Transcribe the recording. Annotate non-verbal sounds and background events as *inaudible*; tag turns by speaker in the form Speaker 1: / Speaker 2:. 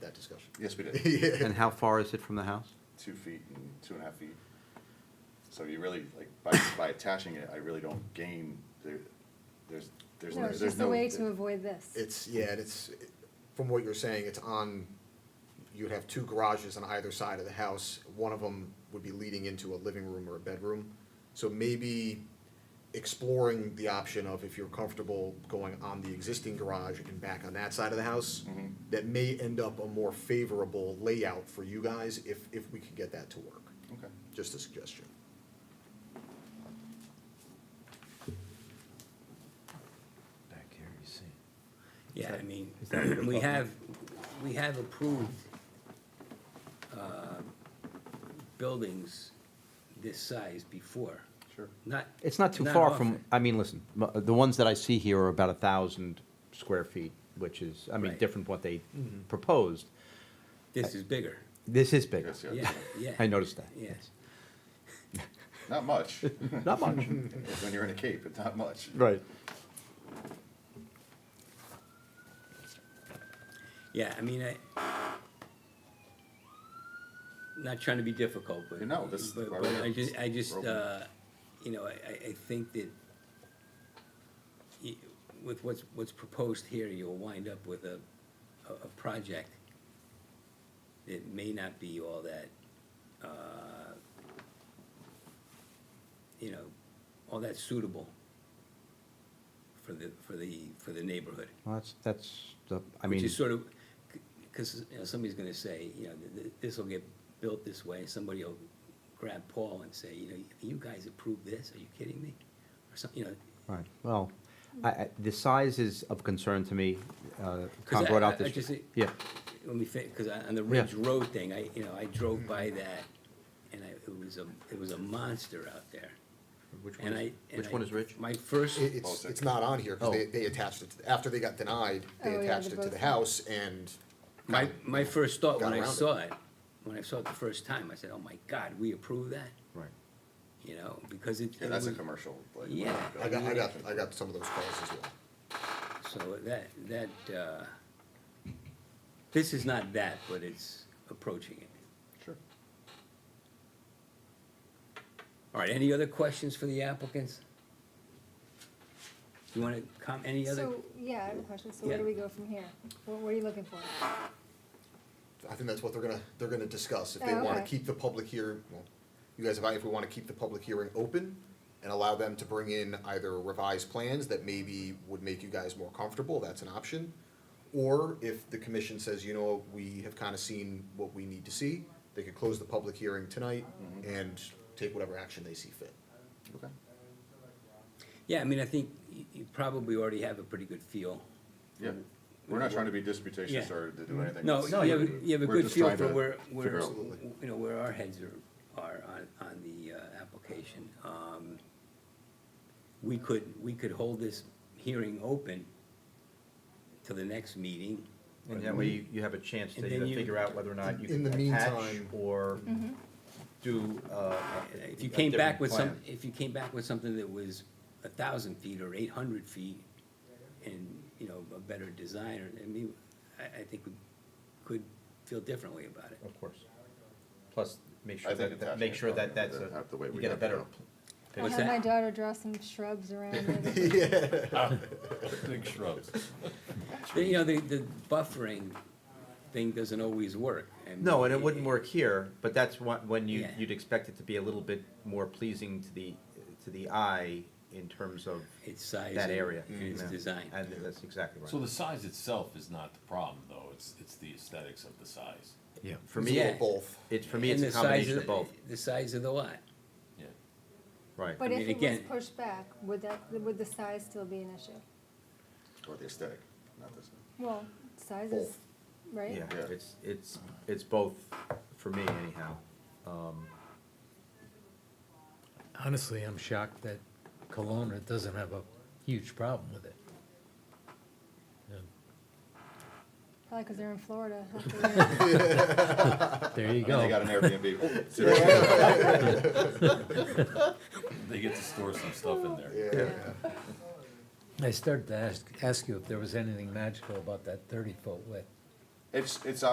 Speaker 1: that discussion. *laughs*
Speaker 2: Yes, we
Speaker 3: *laughs*
Speaker 2: did.
Speaker 1: Yeah.
Speaker 4: And how far is it from the house?
Speaker 2: Two feet and two and a half feet. So you really, like, by, by attaching it, I really don't gain, there, there's, there's,
Speaker 5: No, it's
Speaker 2: there's
Speaker 5: just a
Speaker 2: no.
Speaker 5: way to avoid this.
Speaker 1: It's, yeah, and it's, from what you're saying, it's on, you'd have two garages on either side of the house. One of them would be leading into a living room or a bedroom. So maybe exploring the option of if you're comfortable going on the existing garage and back on that side of the house,
Speaker 2: Mhm.
Speaker 1: that may end up a more favorable layout for you guys if, if we could get that to work.
Speaker 2: Okay.
Speaker 1: Just a suggestion.
Speaker 6: Back here, you see.
Speaker 3: Yeah, I mean,
Speaker 6: is that what you're
Speaker 3: we
Speaker 6: talking-
Speaker 3: have, we have approved uh, buildings this size before.
Speaker 2: Sure.
Speaker 3: Not.
Speaker 4: It's not too far from,
Speaker 3: often.
Speaker 4: I mean, listen, m- uh, the ones that I see here are about a thousand square feet, which is, I mean,
Speaker 3: Right. Mm-hmm.
Speaker 4: different what they proposed.
Speaker 3: This is bigger.
Speaker 4: This is bigger.
Speaker 2: Yes, yeah.
Speaker 3: Yeah, yeah.
Speaker 4: I noticed that.
Speaker 3: Yes.
Speaker 2: Not
Speaker 3: *laughs*
Speaker 2: much,
Speaker 4: Not much.
Speaker 2: when you're in a cape, but not much.
Speaker 4: Right.
Speaker 3: Yeah, I mean, I, not trying to be difficult, but.
Speaker 2: No, this is-
Speaker 3: But, but I just, I just,
Speaker 2: We're open.
Speaker 3: uh, you know, I, I, I think that y- with what's, what's proposed here, you'll wind up with a, a, a project that may not be all that, uh, you know, all that suitable for the, for the, for the neighborhood.
Speaker 4: Well, that's, that's, the- I
Speaker 3: Which
Speaker 4: mean,
Speaker 3: is sort of, because, you know, somebody's gonna say, you know, th- th- this'll get built this way, somebody will grab Paul and say, you know, you guys approved this, are you kidding me? Or some, you know,
Speaker 4: right, well, I, I, the size is of concern to me. Uh, Tom
Speaker 3: I-
Speaker 4: brought
Speaker 3: I-
Speaker 4: out
Speaker 3: I
Speaker 4: this.
Speaker 3: just-
Speaker 4: Yeah,
Speaker 3: when we think, because on the
Speaker 4: Yeah.
Speaker 3: Ridge Road thing, I, you know, I drove by that, and I, it was a, it was a monster out there.
Speaker 4: Which one
Speaker 3: And
Speaker 4: is-
Speaker 3: I. and
Speaker 4: which
Speaker 3: I-
Speaker 4: one is Ridge?
Speaker 3: My first,
Speaker 1: It,
Speaker 2: Oh,
Speaker 1: it's,
Speaker 2: it's
Speaker 1: it's not on here, because they,
Speaker 4: Oh.
Speaker 1: they attached it, to- after they got denied, they
Speaker 5: Oh, yeah,
Speaker 1: attached
Speaker 5: the
Speaker 1: it to the
Speaker 5: both-
Speaker 1: house and.
Speaker 3: my, my first thought when
Speaker 1: Got
Speaker 3: I
Speaker 1: around it.
Speaker 3: saw it, when I saw it the first time, I said, oh my God, we approve that,
Speaker 4: Right.
Speaker 3: you know, because it.
Speaker 2: Yeah,
Speaker 3: it
Speaker 2: that's a
Speaker 3: was-
Speaker 2: commercial, like.
Speaker 3: Yeah.
Speaker 1: I got, I got, I got some of those calls as well.
Speaker 3: So that, that, uh, this is not that, but it's approaching it.
Speaker 2: Sure.
Speaker 3: All right, any other questions for the applicants? You want to com, any other?
Speaker 5: So, yeah, I have a question, so where do
Speaker 3: Yeah.
Speaker 5: we go from here? What, what are you looking for?
Speaker 1: I think that's what they're gonna, they're gonna discuss, if
Speaker 5: Oh,
Speaker 1: they wanna
Speaker 5: okay.
Speaker 1: keep the public hearing, well, you guys, if I, if we wanna keep the public hearing open and allow them to bring in either revised plans that maybe would make you guys more comfortable, that's an option. Or if the commission says, you know, we have kinda seen what we need to see, they could close the public hearing tonight and take whatever action they see fit.
Speaker 2: Okay.
Speaker 3: Yeah, I mean, I think you, you probably already have a pretty good feel.
Speaker 2: Yeah, we're not trying to be disputatious
Speaker 3: Yeah.
Speaker 2: or to do anything.
Speaker 3: No,
Speaker 2: that's-
Speaker 3: you have, a- you have a
Speaker 2: We're
Speaker 3: good
Speaker 2: just
Speaker 3: feel
Speaker 2: trying
Speaker 3: for
Speaker 2: to
Speaker 3: where, where,
Speaker 2: figure out-
Speaker 1: Absolutely.
Speaker 3: you know, where our heads are, are on, on the, uh, application. Um, we could, we could hold this hearing open till the next meeting.
Speaker 4: And that way you- you have a chance to
Speaker 3: And then
Speaker 4: either
Speaker 3: you-
Speaker 4: figure out whether or not you
Speaker 1: In
Speaker 4: can
Speaker 1: the
Speaker 4: attach
Speaker 1: meantime-
Speaker 4: or do, uh.
Speaker 3: Mm-hmm. If you
Speaker 4: a
Speaker 3: came back
Speaker 4: different
Speaker 3: with some,
Speaker 4: plan.
Speaker 3: if you came back with something that was a thousand feet or eight hundred feet and, you know, a better design, I mean, I, I think we could feel differently about it.
Speaker 4: Of course. Plus, make
Speaker 2: I
Speaker 4: sure
Speaker 2: think
Speaker 4: that,
Speaker 2: attaching
Speaker 4: that- make
Speaker 2: it
Speaker 4: sure that
Speaker 2: probably
Speaker 4: that's
Speaker 2: would
Speaker 4: a,
Speaker 2: have the way
Speaker 4: you
Speaker 2: we
Speaker 4: get a
Speaker 2: have it
Speaker 4: better.
Speaker 2: now.
Speaker 5: I'll
Speaker 3: What's
Speaker 5: have my
Speaker 3: that?
Speaker 5: daughter draw some shrubs around
Speaker 1: *laughs*
Speaker 5: it.
Speaker 2: *laughs*
Speaker 1: Yeah. *laughs*
Speaker 6: Big shrubs.
Speaker 3: You know, the, the buffering thing doesn't always work.
Speaker 4: No, and it wouldn't work here, but that's what, when you,
Speaker 3: Yeah.
Speaker 4: you'd expect it to be a little bit more pleasing to the, to the eye in terms of
Speaker 3: Its size.
Speaker 4: that
Speaker 3: and-
Speaker 4: area.
Speaker 3: And its
Speaker 4: Yeah.
Speaker 3: design.
Speaker 4: And that's exactly
Speaker 7: So
Speaker 4: right.
Speaker 7: the size itself is not the problem, though, it's, it's the aesthetics of the size,
Speaker 4: Yeah. For
Speaker 1: It's a
Speaker 4: me,
Speaker 1: little
Speaker 3: Yeah.
Speaker 1: both.
Speaker 4: it's, for me, it's
Speaker 3: And
Speaker 4: a
Speaker 3: the size
Speaker 4: combination of both,
Speaker 3: The size of the lot.
Speaker 7: yeah.
Speaker 4: right.
Speaker 5: But
Speaker 3: I
Speaker 5: if
Speaker 3: mean,
Speaker 5: it was
Speaker 3: again-
Speaker 5: pushed back, would that, would the size still be an issue?
Speaker 2: Or the aesthetic, not this.
Speaker 5: Well, size is,
Speaker 1: Both.
Speaker 5: right?
Speaker 4: Yeah,
Speaker 2: Yeah.
Speaker 4: it's, it's, it's both, for me anyhow.
Speaker 6: Honestly, I'm shocked that Kelowna doesn't have a huge problem with it. Yeah,
Speaker 5: Probably because they're
Speaker 2: *laughs*
Speaker 5: in Florida. Hopefully,
Speaker 6: There
Speaker 4: *laughs*
Speaker 6: you
Speaker 2: And then they got
Speaker 6: go. *laughs*
Speaker 2: an Airbnb. Seriously.
Speaker 7: They get to store some stuff in there.
Speaker 1: Yeah.
Speaker 6: I started to ask, ask you if there was anything magical about that thirty-foot width.
Speaker 2: It's, it's